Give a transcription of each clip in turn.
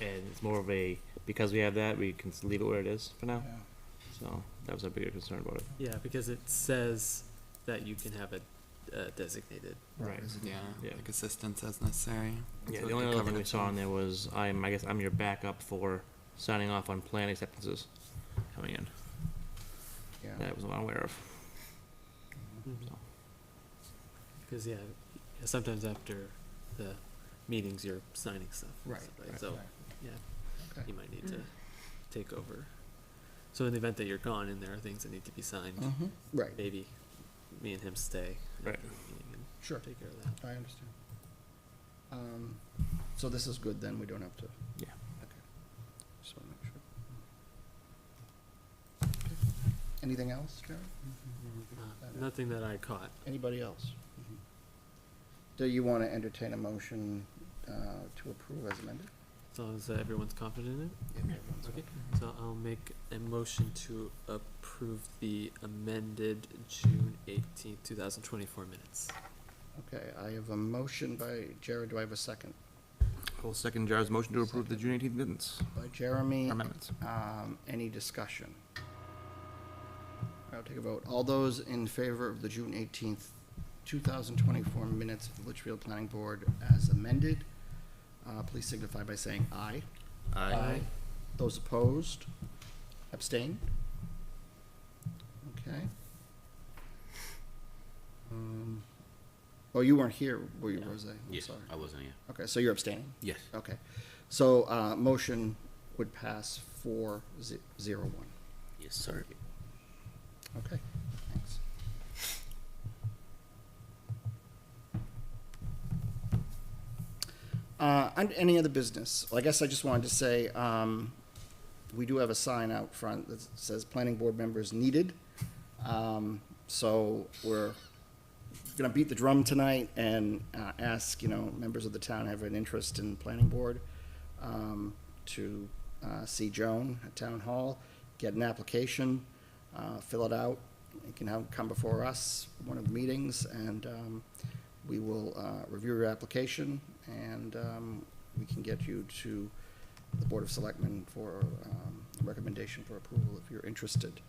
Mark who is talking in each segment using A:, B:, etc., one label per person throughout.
A: and it's more of a, because we have that, we can s- leave it where it is for now.
B: Yeah.
A: So that was our bigger concern about it.
C: Yeah, because it says that you can have a uh, designated.
A: Right.
D: Yeah,
A: Yeah.
D: like assistance as necessary.
A: Yeah,
D: So
A: the
D: it
A: only
D: could
A: other
D: cover
A: thing we
D: the
A: saw on
D: two.
A: there was, I'm, I guess I'm your backup for signing off on plan acceptances coming in.
B: Yeah.
A: That was what I'm aware of.
B: Mm-hmm.
A: So.
C: Because, yeah, sometimes after the meetings, you're signing stuff. and
B: Right,
C: stuff like-
B: right,
C: So
B: right.
C: you might need to take over. So in the event that you're gone and there are things that need to be signed,
B: Mhm. Right,
C: maybe me and him stay. at
A: Right.
C: the meeting and
B: sure,
C: Take care of that.
B: I understand. Um, So this is good then, we don't have to.
A: Yeah.
B: Okay. So make sure. Okay. Anything else, Jerry? Mm-hmm.
C: Uh,
B: Okay.
C: Nothing that I caught.
B: Anybody else? Mm-hmm. Do you want to entertain a motion uh, to approve as amended?
C: As long as uh, everyone's confident in it. Okay, so I'll make a motion to approve the amended June eighteenth, two thousand twenty-four minutes.
B: Okay, I have a motion by Jared, do I have a second?
A: I'll second Jar's motion to approve the June eighteenth minutes,
B: By Jeremy,
A: amendments.
B: um, any discussion? I'll take a vote. All those in favor of the June eighteenth, two thousand twenty-four minutes of the Litchfield Planning Board as amended, uh, please signify by saying aye.
C: Aye.
B: Those opposed? Abstained? Okay. Um, Oh, you weren't here, were you,
C: No.
B: Rose? I'm
E: Yes,
B: sorry.
E: I wasn't here.
B: Okay, so you're abstaining?
E: Yes.
B: Okay. So, uh, motion would pass four ze- zero one.
E: Yes, sir.
B: Okay, thanks. Uh, and any other business? Well, I guess I just wanted to say, um, we do have a sign out front that says planning board members needed. Um, so we're gonna beat the drum tonight and, uh, ask, you know, members of the town have an interest in planning board, um, to, uh, see Joan at town hall, get an application, uh, fill it out. You can have, come before us, one of the meetings, and, um, we will, uh, review your application and, um, we can get you to the Board of Selectmen for, um, recommendation for approval if you're interested.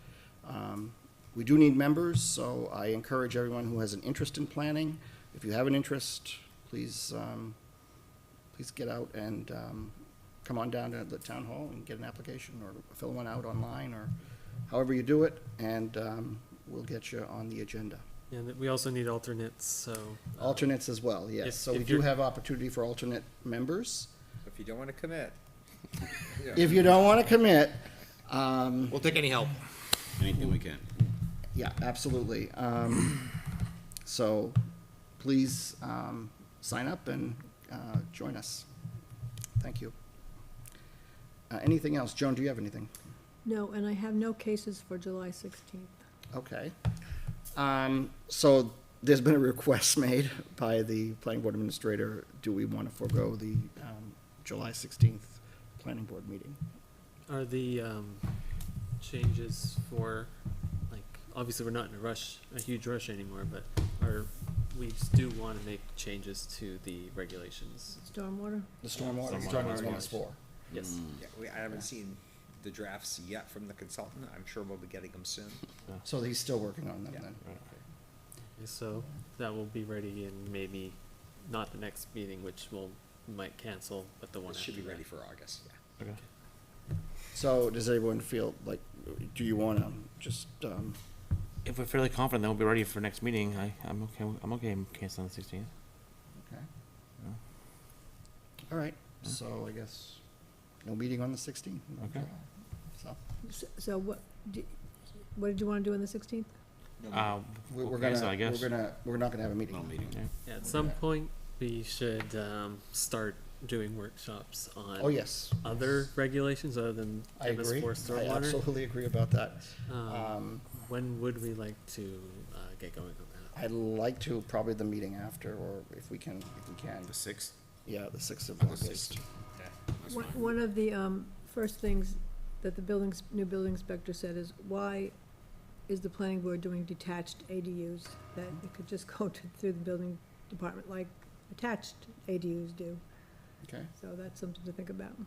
B: Um, we do need members, so I encourage everyone who has an interest in planning, if you have an interest, please, um, please get out and, um, come on down to the town hall and get an application or fill one out online or however you do it, and, um, we'll get you on the agenda.
C: And we also need alternates, so. uh,
B: Alternates as well, yes.
C: If-
B: So we
C: if
B: do
C: you're-
B: have opportunity for alternate members.
F: If you don't want to commit. yeah.
B: If you don't want to commit, um,
A: We'll take any help.
E: Anything we can.
B: yeah, absolutely. Um, so please, um, sign up and, uh, join us. Thank you. Uh, anything else? Joan, do you have anything?
G: No, and I have no cases for July 16th.
B: Okay. Um, so there's been a request made by the planning board administrator. Do we want to forego the, um, July sixteenth planning board meeting?
C: Are the, um, changes for, like, obviously, we're not in a rush, a huge rush anymore, but are, we do wanna make changes to the regulations.
G: Stormwater?
B: The stormwater.
A: Stormwater
B: Stormwater
A: one.
B: is four.
C: Yes.
F: Yeah, we- I haven't seen the drafts yet from the consultant. I'm sure we'll be getting them soon.
B: So he's still working on them
F: Yeah.
B: then?
C: So that will be ready in maybe, not the next meeting, which will, might cancel, but the one
F: It
C: after
F: should be
C: that.
F: ready for August, yeah.
A: Okay.
B: So does everyone feel like, do you want to just, um,
A: If we're fairly confident that we'll be ready for next meeting, I, I'm okay, I'm okay canceling the sixteenth.
B: okay.
A: Yeah.
B: All right, so I guess no meeting on the sixteenth.
A: Okay.
B: So
G: S- So what, d- what did you want to do on the 16th?
A: Uh,
B: we- we're
A: we'll
B: gonna,
A: cancel, I
B: we're
A: guess.
B: gonna, we're not gonna have a meeting.
E: No meeting.
A: Yeah.
C: Yeah, At some
B: Okay.
C: point, we should um, start doing workshops on
B: Oh, yes.
C: other regulations other than
B: I
C: MS4
B: agree. I
C: stormwater.
B: absolutely agree about that.
C: Um,
B: Um,
C: when would we like to uh, get going on that?
B: I'd like to, probably the meeting after, or if we can, if we can,
E: The sixth?
B: yeah, the sixth of
E: On the
B: August.
E: 6th. That's
G: One-
E: fine.
G: One of the um, first things that the buildings, new building inspector said is, why is the planning board doing detached ADUs? That it could just go to- through the building department like attached ADUs do.
B: Okay,
G: So that's something to think about.